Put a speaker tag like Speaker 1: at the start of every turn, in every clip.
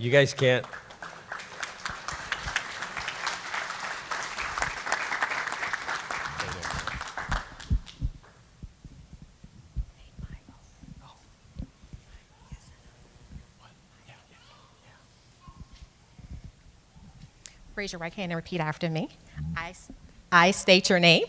Speaker 1: You guys can't.
Speaker 2: Raise your right hand and repeat after me. I, s- I state your name.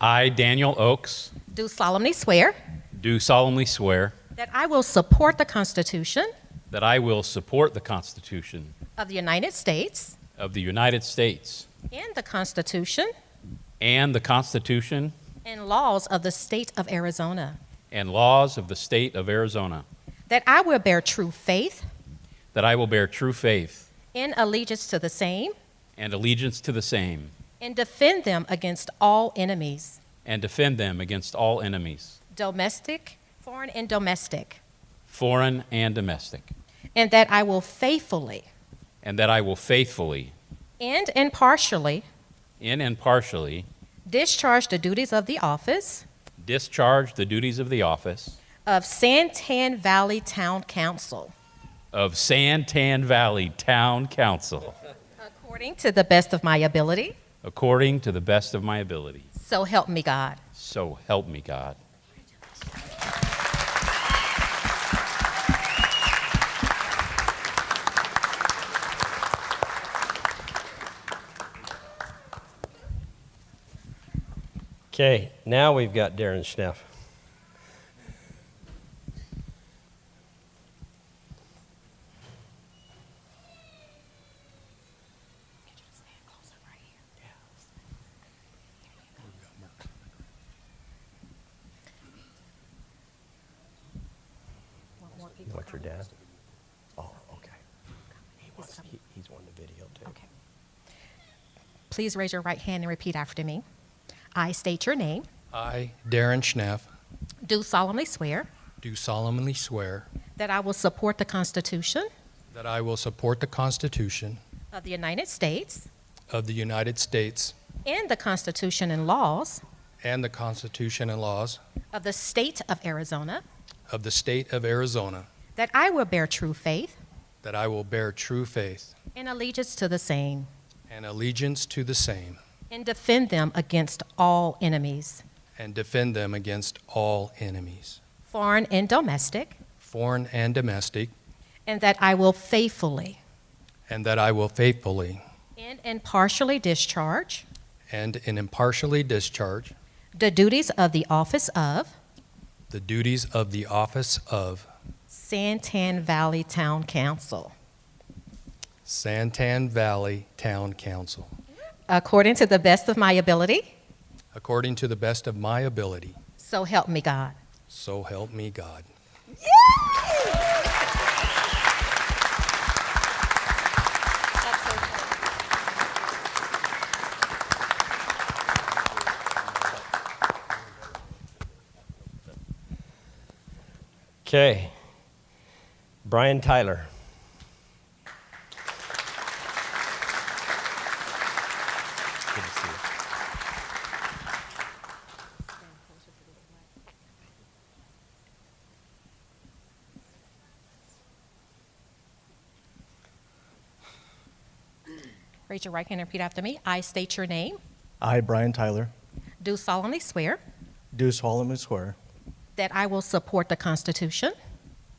Speaker 3: I, Daniel Oakes,
Speaker 2: Do solemnly swear
Speaker 3: do solemnly swear
Speaker 2: that I will support the Constitution
Speaker 3: that I will support the Constitution
Speaker 2: of the United States
Speaker 3: of the United States
Speaker 2: and the Constitution
Speaker 3: and the Constitution
Speaker 2: and laws of the state of Arizona.
Speaker 3: and laws of the State of Arizona,
Speaker 2: That I will bear true faith
Speaker 3: that I will bear true faith
Speaker 2: and allegiance to the same
Speaker 3: and allegiance to the same
Speaker 2: and defend them against all enemies,
Speaker 3: and defend them against all enemies,
Speaker 2: domestic, foreign, and domestic.
Speaker 3: foreign and domestic,
Speaker 2: And that I will faithfully
Speaker 3: and that I will faithfully,
Speaker 2: and impartially
Speaker 3: in and partially,
Speaker 2: discharge the duties of the office
Speaker 3: discharge the duties of the office
Speaker 2: of Santan Valley Town Council
Speaker 3: of Santan Valley Town Council
Speaker 2: according to the best of my ability.
Speaker 3: according to the best of my ability.
Speaker 2: So help me God.
Speaker 3: So help me God.
Speaker 1: Okay, now we've got Darren Schneff. You want your dad? Oh, okay. He wants, he, he's wanting to video too.
Speaker 2: Okay. Please raise your right hand and repeat after me. I state your name,
Speaker 4: I, Darren Schneff,
Speaker 2: do solemnly swear
Speaker 4: do solemnly swear
Speaker 2: that I will support the Constitution
Speaker 4: that I will support the Constitution
Speaker 2: of the United States
Speaker 4: of the United States
Speaker 2: and the Constitution and laws
Speaker 4: and the Constitution and laws
Speaker 2: of the state of Arizona,
Speaker 4: of the State of Arizona,
Speaker 2: that I will bear true faith
Speaker 4: that I will bear true faith
Speaker 2: and allegiance to the same
Speaker 4: and allegiance to the same,
Speaker 2: and defend them against all enemies,
Speaker 4: and defend them against all enemies,
Speaker 2: foreign and domestic,
Speaker 4: foreign and domestic,
Speaker 2: and that I will faithfully
Speaker 4: and that I will faithfully
Speaker 2: and impartially discharge
Speaker 4: and impartially discharge
Speaker 2: the duties of the office of
Speaker 4: the duties of the office of
Speaker 2: Santan Valley Town Council,
Speaker 4: Santan Valley Town Council,
Speaker 2: according to the best of my ability,
Speaker 4: according to the best of my ability.
Speaker 2: so help me God.
Speaker 4: So help me God.
Speaker 1: Okay. Brian Tyler.
Speaker 3: Good to see you.
Speaker 2: Raise your right hand and repeat after me. I state your name,
Speaker 5: I, Brian Tyler,
Speaker 2: do solemnly swear
Speaker 5: do solemnly swear
Speaker 2: that I will support the Constitution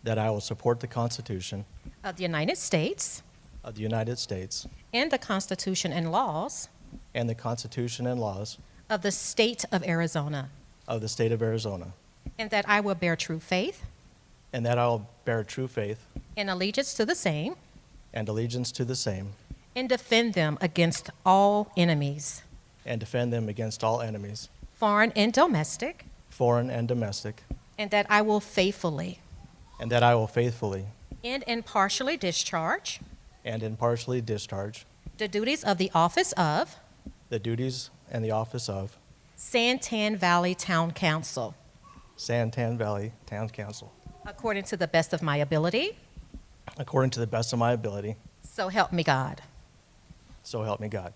Speaker 5: that I will support the Constitution
Speaker 2: of the United States
Speaker 5: of the United States
Speaker 2: and the Constitution and laws
Speaker 5: and the Constitution and laws
Speaker 2: of the state of Arizona,
Speaker 5: of the state of Arizona,
Speaker 2: and that I will bear true faith
Speaker 5: and that I will bear true faith
Speaker 2: and allegiance to the same
Speaker 5: and allegiance to the same
Speaker 2: and defend them against all enemies,
Speaker 5: and defend them against all enemies,
Speaker 2: foreign and domestic,
Speaker 5: foreign and domestic,
Speaker 2: and that I will faithfully
Speaker 5: and that I will faithfully
Speaker 2: and impartially discharge
Speaker 5: and impartially discharge
Speaker 2: the duties of the office of
Speaker 5: the duties and the office of
Speaker 2: Santan Valley Town Council
Speaker 5: Santan Valley Town Council
Speaker 2: according to the best of my ability.
Speaker 5: according to the best of my ability,
Speaker 2: So help me God.
Speaker 5: so help me God.